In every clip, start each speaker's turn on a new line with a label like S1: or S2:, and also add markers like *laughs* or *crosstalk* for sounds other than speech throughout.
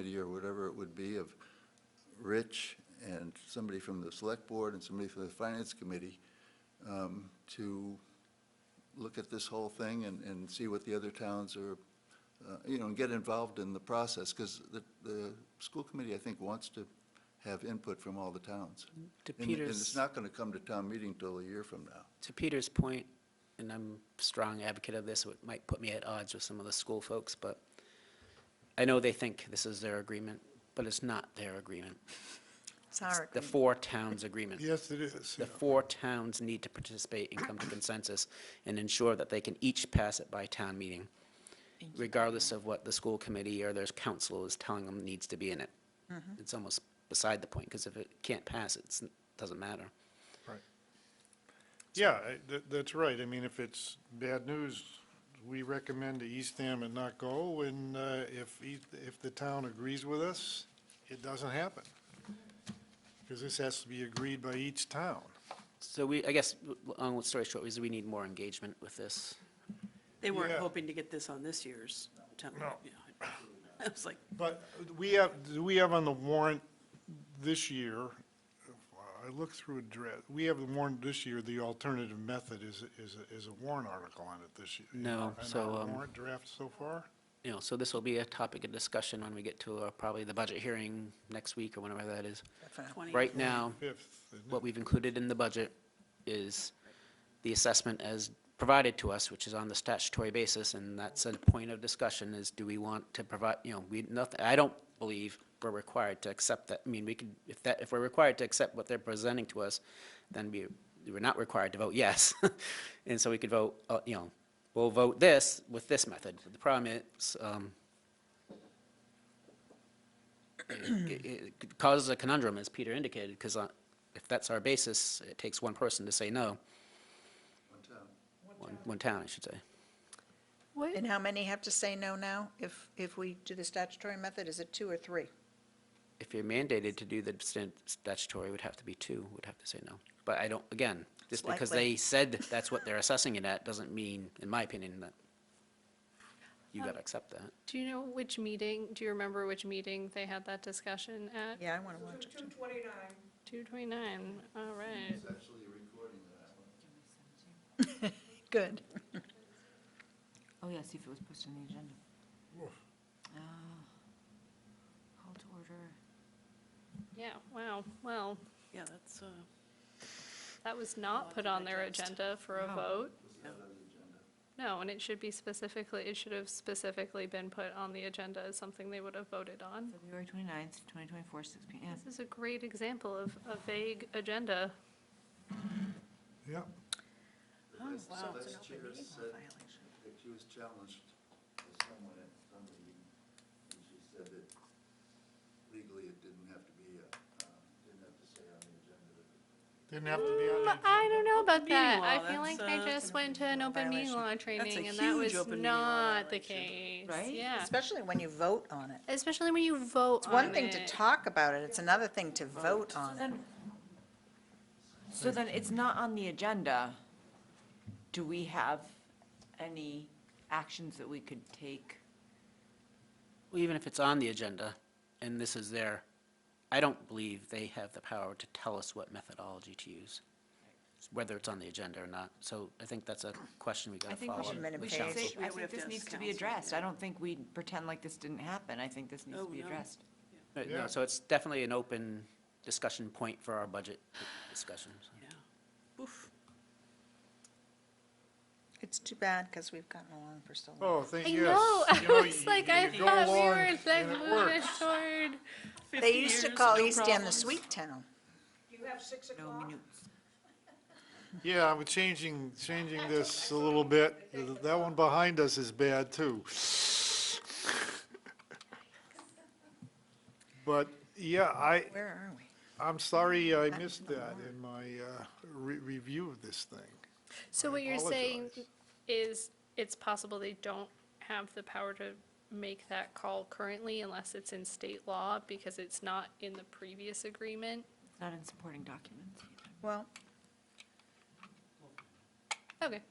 S1: committee or whatever it would be of Rich and somebody from the select board and somebody from the finance committee um, to look at this whole thing and, and see what the other towns are, uh, you know, and get involved in the process, because the, the school committee, I think, wants to have input from all the towns.
S2: To
S1: And- And
S2: Peter's,
S1: it's not going to come to town meeting till a year from now.
S2: to Peter's point, and I'm a strong advocate of this, it might put me at odds with some of the school folks, but I know they think this is their agreement, but it's not their agreement.
S3: It's our
S2: The
S3: agreement.
S2: four towns agreement.
S4: Yes, it is.
S2: The four towns need to participate and come to consensus and ensure that they can each pass it by town meeting, regardless of what the school committee or their council is telling them needs to be in it. It's almost beside the point, because if it can't pass, it's- it doesn't matter.
S4: Right. Yeah, I- tha- that's right. I mean, if it's bad news, we recommend to Eastham and not go, and uh, if, Eas- if the town agrees with us, it doesn't happen. Because this has to be agreed by each town.
S2: So we, I guess, l- long story short, is we need more engagement with this.
S5: They weren't
S4: Yeah.
S5: hoping to get this on this year's town.
S4: No.
S5: yeah. I was like,
S4: But we have, do we have on the warrant this year, I looked through a draft, we have the warrant this year, the alternative method is, is, is a warrant article on it this year.
S2: No, so,
S4: And our
S2: um,
S4: warrant draft so far?
S2: You know, so this will be a topic of discussion when we get to uh, probably the budget hearing next week or whenever that is.
S5: 20.
S2: Right now,
S4: Fifth. isn't it?
S2: what we've included in the budget is the assessment as provided to us, which is on the statutory basis, and that's a point of discussion, is do we want to provide, you know, we, nothing, I don't believe we're required to accept that, I mean, we could, if that, if we're required to accept what they're presenting to us, then we, we're not required to vote yes. *laughs* And so we could vote, uh, you know, we'll vote this with this method. The problem is, um, it- it causes a conundrum, as Peter indicated, because if that's our basis, it takes one person to say no. One town. One town, I should say.
S3: And how many have to say no now if, if we do the statutory method? Is it two or three?
S2: If you're mandated to do the stan- statutory, it would have to be two, would have to say no. But I don't, again, just because
S3: likely.
S2: they said that's what they're assessing it at, doesn't mean, in my opinion, that you gotta accept that.
S6: Do you know which meeting, do you remember which meeting they had that discussion at?
S3: Yeah, I want to watch it. too.
S6: 229, all right.
S1: It's actually a recording of that one.
S3: Good.
S7: Oh, yeah, see if it was posted on the agenda. Ah, Call to order.
S6: Yeah, wow, well,
S5: Yeah, that's, uh,
S6: that was not put on their agenda for a vote.
S5: No.
S6: No, and it should be specifically, it should have specifically been put on the agenda as something they would have voted on.
S7: February 29th, 2024, 6 PM.
S6: This is a great example of a vague agenda.
S4: Yeah.
S1: The last- the last chair said that she was challenged by someone at some meeting, and she said that legally it didn't have to be, uh, uh, didn't have to say on the agenda that
S4: Didn't have to be on the
S6: But Mm, I don't know about
S5: Meeting
S6: that.
S5: law,
S6: I feel like
S5: that's,
S6: I
S5: uh,
S6: just went to an open meeting
S3: violation.
S6: law
S5: a
S6: training and that was
S5: huge open meeting law
S6: not the
S5: violation.
S6: case.
S7: Right?
S6: Yeah,
S3: Especially when you vote on it.
S6: especially when you vote
S3: It's
S6: on it.
S3: one thing to talk about it, it's another thing to vote on it.
S7: Then- So then it's not on the agenda. Do we have any actions that we could take?
S2: Well, even if it's on the agenda, and this is their, I don't believe they have the power to tell us what methodology to use, whether it's on the agenda or not. So I think that's a question we
S7: I
S2: gotta
S7: think we
S2: follow. up
S7: should,
S3: Minute
S7: we
S2: with
S7: should
S3: page.
S2: council.
S7: say, I
S5: We would
S7: think
S5: have
S7: this
S5: to
S7: needs
S5: ask
S7: to be
S5: council,
S7: addressed.
S5: yeah.
S7: I don't think we pretend like this didn't happen. I think this needs
S5: Oh,
S7: to be
S5: no.
S7: addressed.
S2: Uh,
S4: Yeah.
S2: No, so it's definitely an open discussion point for our budget discussions.
S5: yeah. Oof.
S3: It's too bad because we've gotten along for so long.
S4: Oh, thank
S6: I
S4: you.
S6: know,
S4: You
S6: *laughs* I was
S4: you-
S6: like,
S4: you go
S6: I thought we
S4: along
S6: were like
S4: and it
S6: moving
S4: works.
S6: toward.
S5: 50
S3: They used to
S5: years,
S3: call
S5: no
S3: East End the
S5: problems.
S3: sweet town.
S7: No minutes.
S4: Yeah, I'm changing, changing this a little bit. Th- That one behind us is bad, too. *laughs* But, yeah, I,
S3: Where are we?
S4: I'm sorry I missed that in my uh, re- review of this thing.
S6: So what you're saying
S4: apologize.
S6: is it's possible they don't have the power to make that call currently unless it's in state law because it's not in the previous agreement?
S7: Not in supporting documents.
S3: Well,
S6: Okay,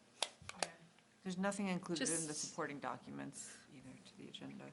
S7: There's nothing included in the
S6: Just-
S7: supporting documents either to the agenda.